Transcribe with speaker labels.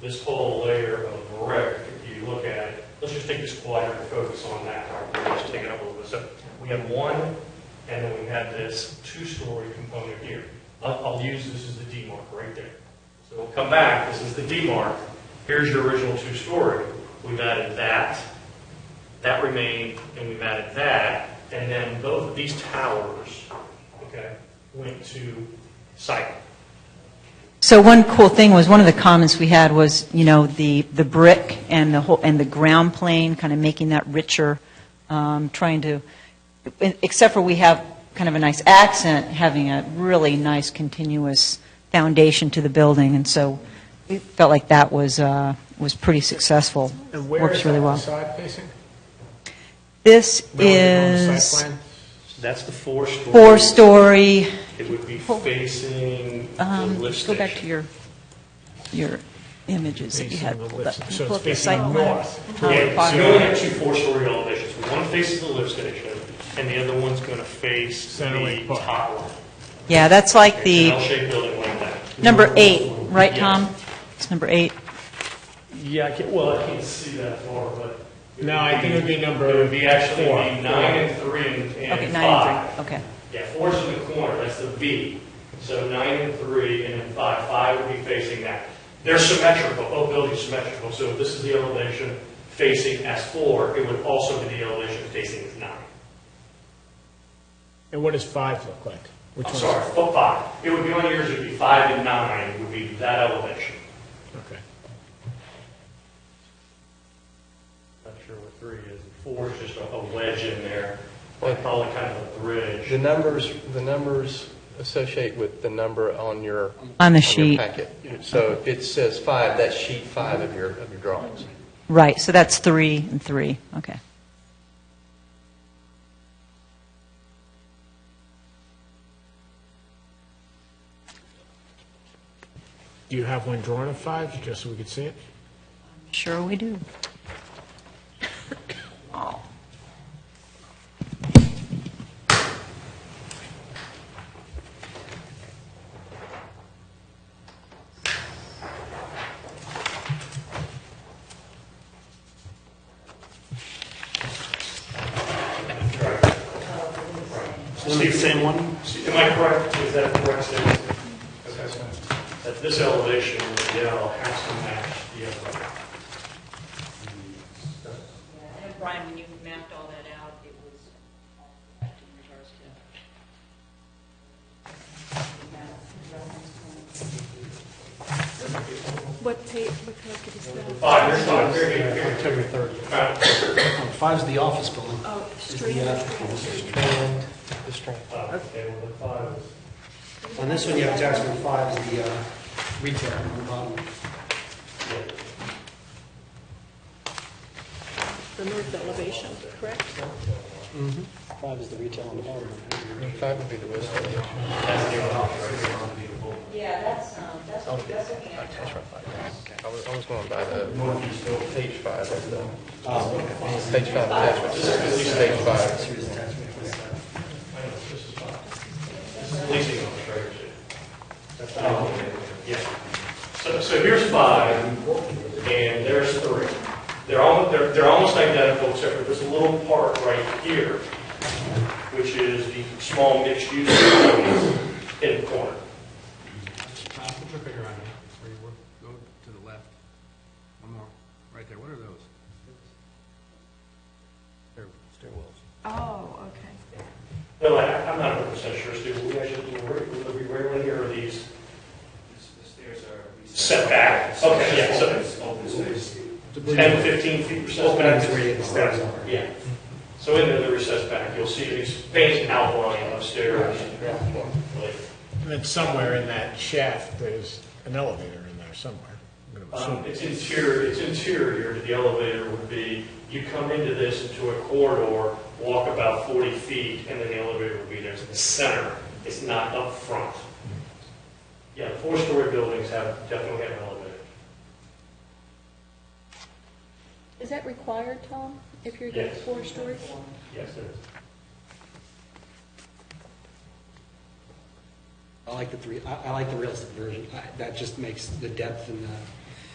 Speaker 1: this whole layer of brick, if you look at it, let's just take this quadrant and focus on that, all right, let's take it up a little bit. So we have one, and then we have this two-story component here. I'll, I'll use this as the D mark right there. So we'll come back, this is the D mark, here's your original two-story. We've added that, that remained, and we've added that, and then both of these towers, okay, went to site.
Speaker 2: So one cool thing was, one of the comments we had was, you know, the, the brick and the whole, and the ground plane, kind of making that richer, um, trying to, except for we have kind of a nice accent, having a really nice continuous foundation to the building, and so we felt like that was, uh, was pretty successful.
Speaker 3: And where
Speaker 2: Works
Speaker 3: is
Speaker 2: really
Speaker 3: that
Speaker 2: well.
Speaker 3: facade facing?
Speaker 2: This
Speaker 3: Relative on the
Speaker 2: is
Speaker 3: site plan?
Speaker 1: That's the four-story.
Speaker 2: four-story,
Speaker 1: It would be
Speaker 2: Hold-
Speaker 1: facing the
Speaker 2: um,
Speaker 1: lift
Speaker 2: go back to
Speaker 1: station.
Speaker 2: your, your images that you
Speaker 3: Facing
Speaker 2: had
Speaker 3: the
Speaker 2: pulled
Speaker 3: lift
Speaker 2: up.
Speaker 3: station.
Speaker 2: Can you
Speaker 3: So
Speaker 2: pull
Speaker 3: it's
Speaker 2: up your
Speaker 3: facing
Speaker 2: site plan?
Speaker 3: north
Speaker 2: Um,
Speaker 1: Yeah, so
Speaker 2: bottom.
Speaker 1: you only have two four-story elevations. One faces the lift station, and the other one's going to face the
Speaker 3: Center Lake Park.
Speaker 1: top one.
Speaker 2: Yeah, that's like
Speaker 1: It's an
Speaker 2: the,
Speaker 1: L-shaped building like that.
Speaker 2: number eight, right,
Speaker 1: Yes.
Speaker 2: Tom? It's number eight.
Speaker 1: Yeah, I can, well, I can't see that far, but. it
Speaker 3: No,
Speaker 1: would
Speaker 3: I think it would be number
Speaker 1: It would be actually
Speaker 3: four.
Speaker 1: be nine and three and and
Speaker 2: Okay, nine
Speaker 1: five.
Speaker 2: and three, okay.
Speaker 1: Yeah, four's in the corner, that's the V. So nine and three, and then five, five would be facing that. They're symmetrical, both buildings symmetrical, so if this is the elevation facing S4, it would also be the elevation facing S9.
Speaker 3: And what does five look like? Which
Speaker 1: I'm
Speaker 3: one's-
Speaker 1: sorry, foot five. It would be on yours, it would be five and nine would be that elevation.
Speaker 3: Okay.
Speaker 1: Not sure what three is. Four is just a a wedge in there, or probably kind of a bridge.
Speaker 4: The numbers, the numbers associate with the number on your.
Speaker 2: On the
Speaker 4: your
Speaker 2: sheet.
Speaker 4: packet. So if it says five, that's sheet five of your, of your drawings.
Speaker 2: Right, so that's three and three, okay.
Speaker 3: Do you have one drawn of five, just so we could see it?
Speaker 2: Sure we do.
Speaker 1: the same one? Am I correct? Is that correct statement? Okay. That this elevation, the L, has to match the other. one.
Speaker 5: I know, Brian, when you mapped all that out, it was all correct in regards to.
Speaker 6: What page, what page is that?
Speaker 1: Five, there's five, here, here, here. October
Speaker 7: Five's Oh, the office building.
Speaker 6: Oh, street,
Speaker 7: Is the, uh,
Speaker 4: And the strength.
Speaker 7: On this one, you have tax number five is the uh, retail on the bottom.
Speaker 6: remove the elevation, correct?
Speaker 7: Five is the retail on the bottom.
Speaker 4: Five would be the west elevation.
Speaker 5: Yeah, that's, um, that's, that's looking at.
Speaker 4: I was, I was going by the page five of the, page five attachment. This is page five.
Speaker 1: Leasing on the trailer, too. Um, Yeah. So, so here's five, and there's three. They're all, they're, they're almost identical, except for this little part right here, which is the small mixed-use in the
Speaker 8: Uh,
Speaker 1: corner.
Speaker 8: Put your finger on it, where you were, go to the left, one more, right there, what are those? Stair- Stairwells.
Speaker 6: Oh, okay.
Speaker 1: No, I, I'm not hundred percent sure, Steve, we actually, we, we rarely hear of these
Speaker 8: The stairs are.
Speaker 1: setback. Okay, yeah, so
Speaker 8: Open space.
Speaker 1: 10, 15 feet recessed
Speaker 7: Open
Speaker 1: back.
Speaker 7: is where you get the stairs are.
Speaker 1: Yeah. So in the recessed back, you'll see these faint outline upstairs. Like,
Speaker 3: And then somewhere in that shaft, there's an elevator in there somewhere. I'm gonna
Speaker 1: Um,
Speaker 3: assume.
Speaker 1: It's interior, it's interior to the elevator would be, you come into this into a corridor, walk about 40 feet, and then the elevator would be there. It's in the center, it's not up front. Yeah, the four-story buildings have, definitely have elevators.
Speaker 6: Is that required, Tom, if you're getting
Speaker 1: Yes.
Speaker 6: four stories?
Speaker 1: Yes, there is.
Speaker 7: I like the three, I I like the realistic version. I- That just makes the depth and the